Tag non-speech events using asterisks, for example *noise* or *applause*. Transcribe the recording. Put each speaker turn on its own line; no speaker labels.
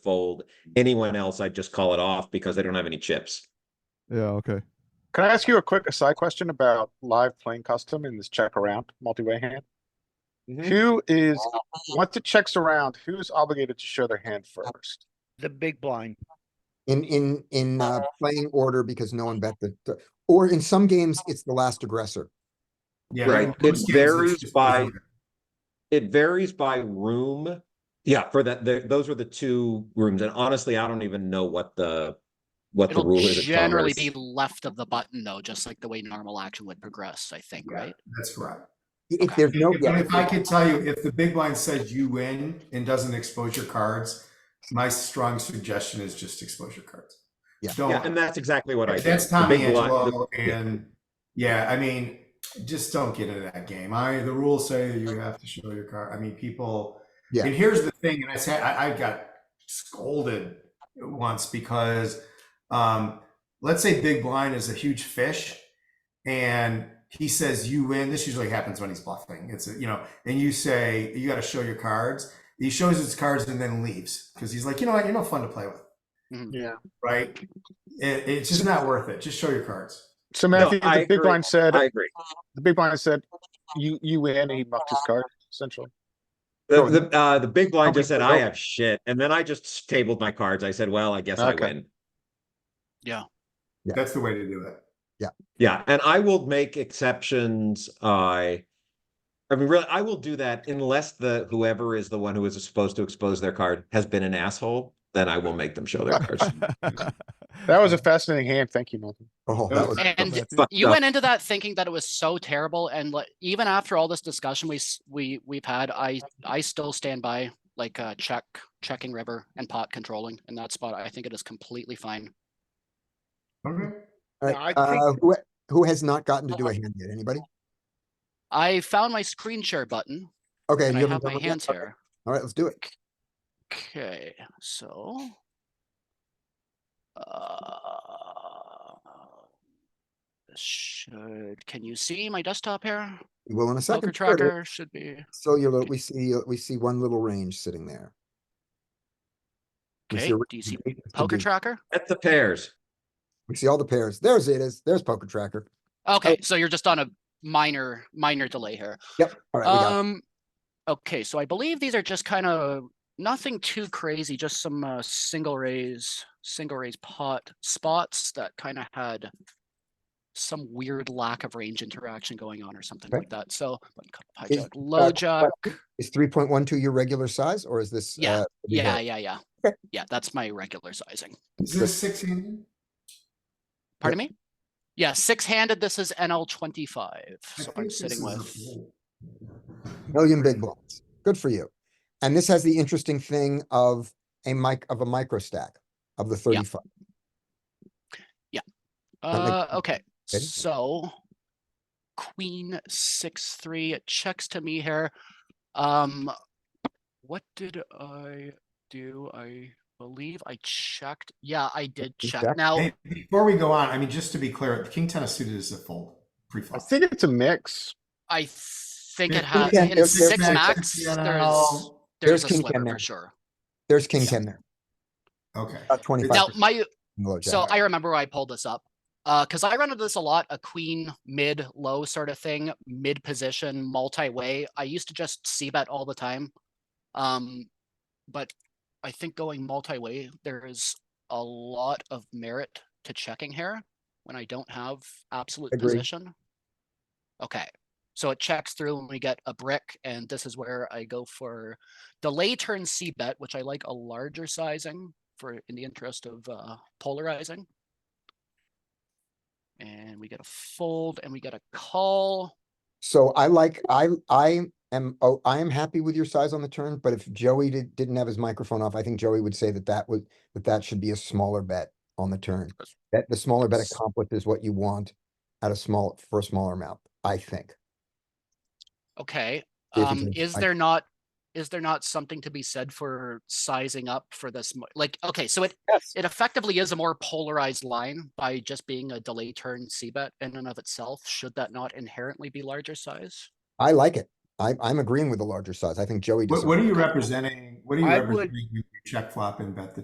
fold. Anyone else, I'd just call it off because they don't have any chips.
Yeah, okay.
Can I ask you a quick aside question about live playing custom in this check around multi-way hand? Who is, once it checks around, who's obligated to show their hand first?
The big blind.
In, in, in,
Uh-huh.
uh, playing order because no one bet the, the- or in some games, it's the last aggressor.
Yeah,
Right,
most
it
games it's
varies
just
by-
over.
It varies by room. Yeah, for that, the- those were the two rooms. And honestly, I don't even know what the, what the
It'll
rule is. at
generally be
Congress.
left of the button though, just like the way normal action would progress, I think,
Yeah.
right?
That's correct.
If there's no,
If-
yeah,
and if I could tell you, if the big blind says you win and doesn't expose your cards, my strong suggestion is just expose your cards.
Yeah.
Don't.
Yeah, and that's exactly what I did.
That's
The
Tommy
big blind-
Angelo,
the- yeah.
and yeah, I mean, just don't get into that game. I the rules say you have to show your card. I mean, people.
Yeah.
And here's the thing, and I said I, I got scolded once because, um, let's say Big Blind is a huge fish, and he says you win. This usually happens when he's bluffing. It's a, you know, and you say you got to show your cards. He shows his cards and then leaves because he's like, you know what, you're no fun to play with,
Yeah.
right? It, it's just not worth it. Just show your cards.
So Matthew,
I
the big
agree.
blind said,
I agree.
the big blind said, you, you win, and he mucked his card, essentially.
The,
Go
the, uh, the big blind
Okay,
just said,
go
I
ahead."
have shit. And then I just tabled my cards. I said, well, I guess I
Okay.
win.
Yeah.
That's the way to do it.
Yeah, and I will make exceptions. I, I mean, really, I will do that unless the whoever is the one who is supposed to expose their card has been an asshole. Then I will make them show their
*laughs*
cards.
That was a fascinating hand. Thank you, Matthew.
oh, that was,
And
Matthew.
Fucked
you
up.
went into that thinking that it was so terrible and like, even after all this discussion we, s- we, we've had, I, I still stand by like, uh, check, checking river and pot controlling in that spot. I think it is completely fine.
Okay.
all right,
I think-
uh, who, who has not gotten to do
Uh-huh.
a hand yet? Anybody?
I found my screen share button
Okay.
and I
you haven't
have
done
my
one yet?
hands
Okay,
here.
All right, let's do it.
Okay, so. uh, this Should, can you see my desktop here?
We will in a
Poker
second. Sure, there-
tracker should be,
So you, look- we see, uh, we see one little range sitting there. We see
okay,
a range
do you see
of eight to
poker
D.
tracker?
At the pairs.
We see all the pairs. There's it is. There's poker tracker.
Okay, so you're just on a minor, minor delay here.
Yep. All right. we got it.
Um, okay, so I believe these are just kind of nothing too crazy, just some uh, single raise, single raise pot spots that kind of had some weird lack of range interaction going on or something
Okay.
like that. So button cutoff,
Is,
hijack, low
uh,
jack.
Is three point one two your regular size or is this?
Yeah,
uh, we
Yeah,
have-
yeah, yeah.
Okay.
Yeah, that's my regular sizing.
Is this six handed?
Pardon me? Yeah, six handed. This is NL twenty five.
I
So
think
I'm
this is
sitting
a
with.
fold.
Million big blinds. Good for you. And this has the interesting thing of a mic, of a micro stack of the thirty-five. that makes
Uh,
sense.
okay,
Okay.
so queen six three it checks to me here. Um, what did I do? I believe I checked. Yeah, I did
you
check.
checked?
Now,
Hey, before we go on, I mean, just to be clear, the king ten of suited is a fold
I
pre-flop.
think it's a mix.
I think
There's
it
king
has,
ten,
in
there's- there's
six
king
max,
ten
there's,
now.
there's
there's
a
king ten
sliver
there.
for sure.
There's king
Yeah.
ten there,
Okay.
about
Now,
twenty-five.
my,
low jack.
So
Jack.
I remember where I pulled this up. Uh, cause I run into this a lot, a queen, mid, low sort of thing, mid position, multi-way. I used to just see bet all the time. Um, but I think going multi-way, there is a lot of merit to checking here when I don't have absolute
Agree.
position. Okay, so it checks through and we get a brick and this is where I go for delay turn C bet, which I like a larger sizing for, in the interest of, uh, polarizing. And we get a fold and we get a call.
So I like, I, I am, oh, I am happy with your size on the turn, but if Joey did, didn't have his microphone off, I think Joey would say that that would, that that should be a smaller bet on the turn. That the smaller bet
S-
accomplished is what you want at a small, for a smaller amount, I think.
Okay,
See if you
um,
can
is
find-
there not, is there not something to be said for sizing up for this? mo- Like, okay, so it,
Yes.
it effectively is a more polarized line by just being a delay turn C bet in and of itself. Should that not inherently be larger size?
I like it. I, I'm agreeing with the larger size. I think Joey does.
What,
it.
what are you representing? What are you
I would-
representing? when you Check flop and bet the